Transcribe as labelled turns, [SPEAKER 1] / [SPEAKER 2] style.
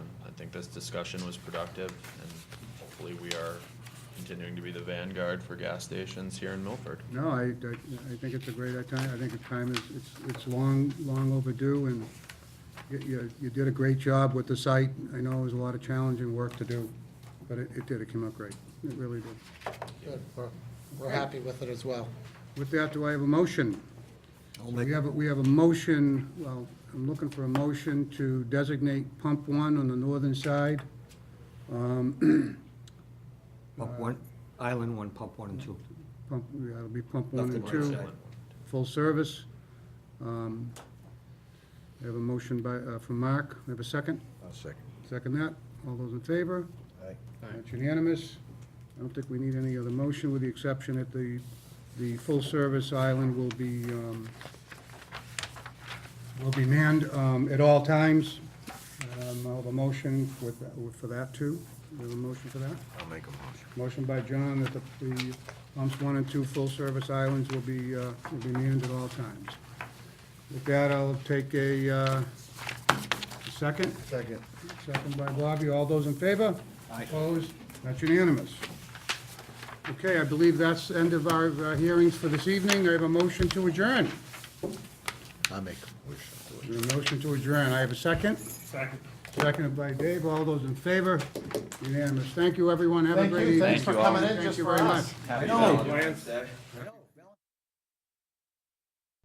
[SPEAKER 1] think this discussion was productive, and hopefully we are continuing to be the vanguard for gas stations here in Milford.
[SPEAKER 2] No, I, I, I think it's a great time, I think the time is, it's, it's long, long overdue, and you- you, you did a great job with the site. I know it was a lot of challenging work to do, but it, it did, it came out great, it really did.
[SPEAKER 3] Good, we're, we're happy with it as well.
[SPEAKER 2] With that, do I have a motion? We have, a- we have a motion, well, I'm looking for a motion to designate Pump One on the northern side. um,
[SPEAKER 4] Pump one, island one, pump one and two.
[SPEAKER 2] Pump, yeah, it'll be Pump One and
[SPEAKER 4] Pump
[SPEAKER 2] Two,
[SPEAKER 4] One.
[SPEAKER 2] full service. Um, I have a motion by, uh, from Mark, I have a second?
[SPEAKER 5] I'll second.
[SPEAKER 2] Second that. All those in favor?
[SPEAKER 5] Aye.
[SPEAKER 2] That's unanimous. I don't think we need any other motion, with the exception that the, the full-service island will be, um, will be manned um, at all times. Um, I'll have a motion with, for that, too. We have a motion for that?
[SPEAKER 5] I'll make a motion.
[SPEAKER 2] Motion by John that the, the pumps one and two full-service islands will be, uh, will be manned at all times. With that, I'll take a, uh, second.
[SPEAKER 5] Second.
[SPEAKER 2] Second by Bobby. All those in favor? Aye. Opposed? That's unanimous. Okay, I believe that's the end of our uh, hearings for this evening. I have a motion to adjourn.
[SPEAKER 5] I'll make a motion.
[SPEAKER 2] There's a motion to adjourn. I have a second?
[SPEAKER 6] Second.
[SPEAKER 2] Seconded by Dave. All those in favor? Unanimous. Thank you, everyone. Have a
[SPEAKER 3] Thank
[SPEAKER 2] great
[SPEAKER 3] you,
[SPEAKER 2] evening.
[SPEAKER 3] thanks for coming in
[SPEAKER 2] Thank
[SPEAKER 3] just
[SPEAKER 2] you
[SPEAKER 3] for
[SPEAKER 2] very
[SPEAKER 3] us.
[SPEAKER 2] much.
[SPEAKER 6] Happy Valentine's Day.